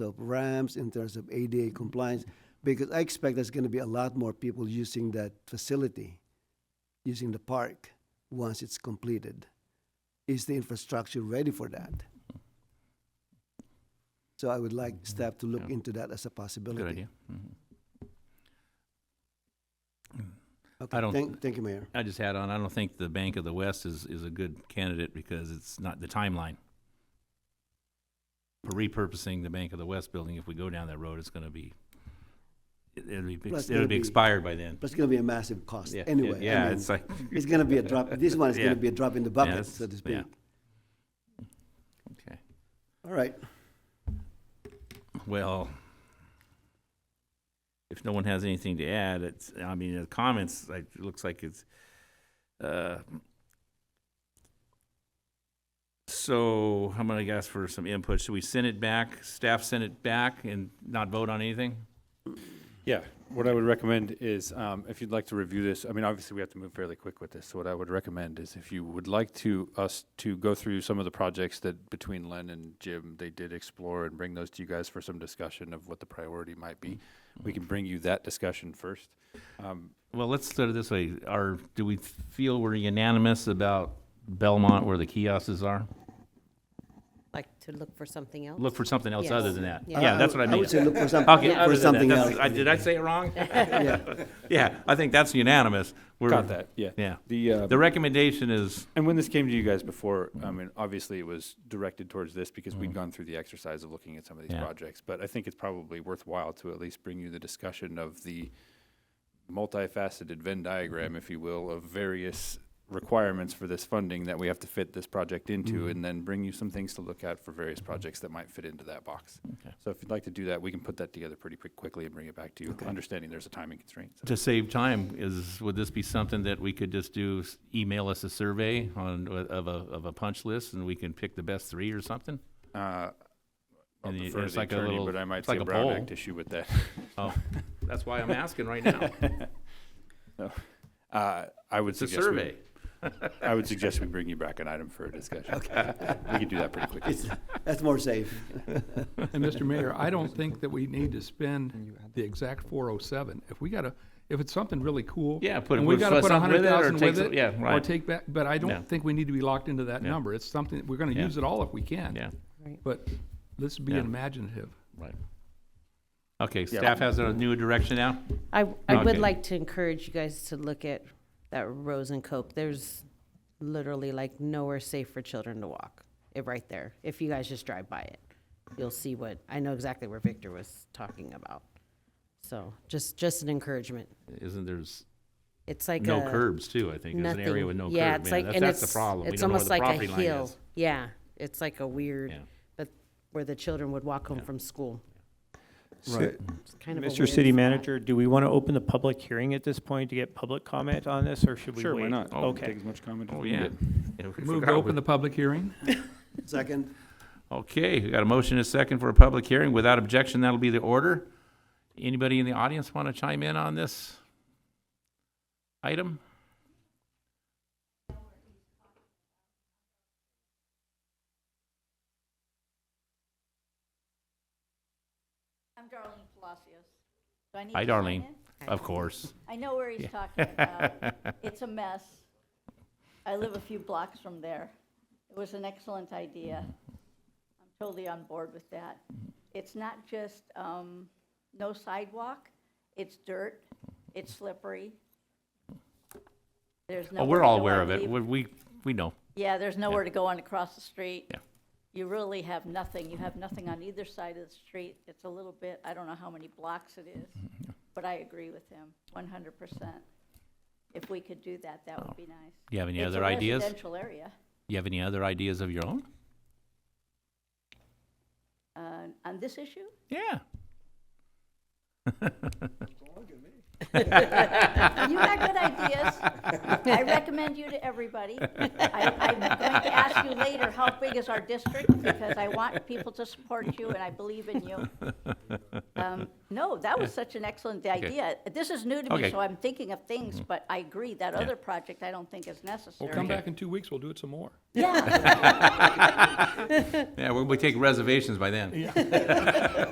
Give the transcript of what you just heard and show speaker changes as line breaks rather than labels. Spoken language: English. of ramps, in terms of ADA compliance, because I expect there's gonna be a lot more people using that facility, using the park, once it's completed. Is the infrastructure ready for that? So I would like staff to look
Mm-hmm. Yeah.
into that as a possibility.
Good idea. Mhm.
Okay,
I don't-
Thank, thank you, Mayor.
I just had on, I don't think the Bank of the West is, is a good candidate because it's not the timeline. For repurposing the Bank of the West building, if we go down that road, it's gonna be, it- it'll be,
Well, it's
it'll
gonna
be
be-
expired by then.
But it's gonna be a massive cost
Yeah, yeah,
anyway. I
Yeah,
mean,
it's like,
It's gonna be a drop, this one is
Yeah.
gonna be a drop in the bucket,
that's-
so to
yeah.
speak.
okay,
All right,
well, if no one has anything to add, it's, I mean, the comments, like, it looks like it's, uh, so I'm gonna ask for some input. Should we send it back, staff send it back and not vote on anything?
Yeah, what I would recommend is, um, if you'd like to review this, I mean, obviously, we have to move fairly quick with this. So what I would recommend is if you would like to, us to go through some of the projects that between Len and Jim, they did explore and bring those to you guys for some discussion of what the priority might be. We can bring you that discussion first. Um,
Well, let's start it this way. Are, do we feel we're unanimous about Belmont where the kiosks are?
Like to look for something else?
Look for something else other than that.
Yes. Yeah.
Yeah, that's what I mean.
would say look for
Okay,
something,
other
for
than that,
something
that's-
else.
I- Did I say it wrong?
Yeah.
Yeah, I think that's unanimous. We're-
Got that, yeah.
Yeah.
The, uh,
The recommendation is,
And when this came to you guys before, I
Mm-hmm.
mean, obviously it was directed towards this because we'd gone through the exercise of looking at some of these
Yeah.
projects. But I think it's probably worthwhile to at least bring you the discussion of the multifaceted Venn diagram,
Mm-hmm.
if you will, of various requirements for this funding that we have to fit this project into,
Mm-hmm.
and then bring you some things to look at for various projects that might fit into that box.
Okay.
So if you'd like to do that, we can put that together pretty quick- quickly and bring it back to you, understanding there's a timing constraint. so.
to save time, is, would this be something that we could just do, s- email us a survey on, uh, of a, of a punch list, and we can pick the best three or something?
Uh, I'll
And you-
defer to
it's
the
like a
attorney,
little-
but I might
it's
see
like
a
a
Brown
poll.
Act issue with that.
Oh, that's why I'm asking right now.
Uh, I would
It's a
suggest
survey.
We, I would suggest we bring you back an item for a discussion. We can do that pretty quickly.
That's more safe.
And Mr. Mayor, I don't think that we need to spend the exact four oh seven. If we gotta, if it's something really cool.
Yeah, put-
And we
put
gotta put a
something
hundred
with it or
thousand
take
with
some-
it.
yeah,
Or
right.
take back, but I
Yeah.
don't think we need to be locked into that
Yeah.
number. It's something, we're gonna
Yeah.
use it all if we can.
Yeah,
Right.
But let's be
Yeah.
imaginative.
right. Okay, staff has a new direction now?
I, I would
Okay.
like to encourage you guys to look at that Rose and Cope. There's literally like nowhere safe for children to walk, it, right there. If you guys just drive by it, you'll see what, I know exactly where Victor was talking about. So just, just an encouragement.
Isn't there's
It's like
no
a-
curbs too, I think. There's an area
nothing.
with no
Yeah,
curb,
it's
man.
like-
That's,
and
that's the
it's-
problem. We
It's
don't know where
almost
the
like a
property line
hill.
is.
Yeah, it's like a weird,
Yeah.
but where the children would walk home from school.
Right.
It's kind of a
Mr.
weird
City
spot.
Manager, do we want to open the public hearing at this point to get public comment on this, or should we wait?
Sure, why not? Take
Okay.
as much comment as
Oh,
we can
yeah.
get.
Yeah, we
Move to
forgot we-
open the public hearing.
Second,
Okay, we got a motion and a second for a public hearing. Without objection, that'll be the order. Anybody in the audience want to chime in on this item?
I'm Darlene Palacios. Do I need
Hi,
to sign
Darlene.
in?
Of course.
I know where he's talking about. It's a mess. I live a few blocks from there. It was an excellent idea. I'm totally on board with that. It's not just um, no sidewalk, it's dirt, it's slippery. There's no.
Oh, we're all aware of it. We, we, we know.
Yeah, there's nowhere to go on across the street.
Yeah.
You really have nothing. You have nothing on either side of the street. It's a little bit, I don't know how many blocks it is,
Mm-hmm,
but I agree with him, one hundred percent. If we could do that, that would be nice.
You have any
It's a
other ideas?
residential area.
You have any other ideas of your own?
Uh, On this issue?
Yeah.
You got good ideas. I recommend you to everybody. I, I'm going to ask you later, how big is our district? Because I want people to support you and I believe in you. Um, No, no, that was such an excellent idea. This is new to
Okay.
me, so I'm thinking of things, but I agree, that other project I don't think is necessary.
Well, come back in two weeks, we'll do it some more.
Yeah.
Yeah, we'll be taking reservations by then.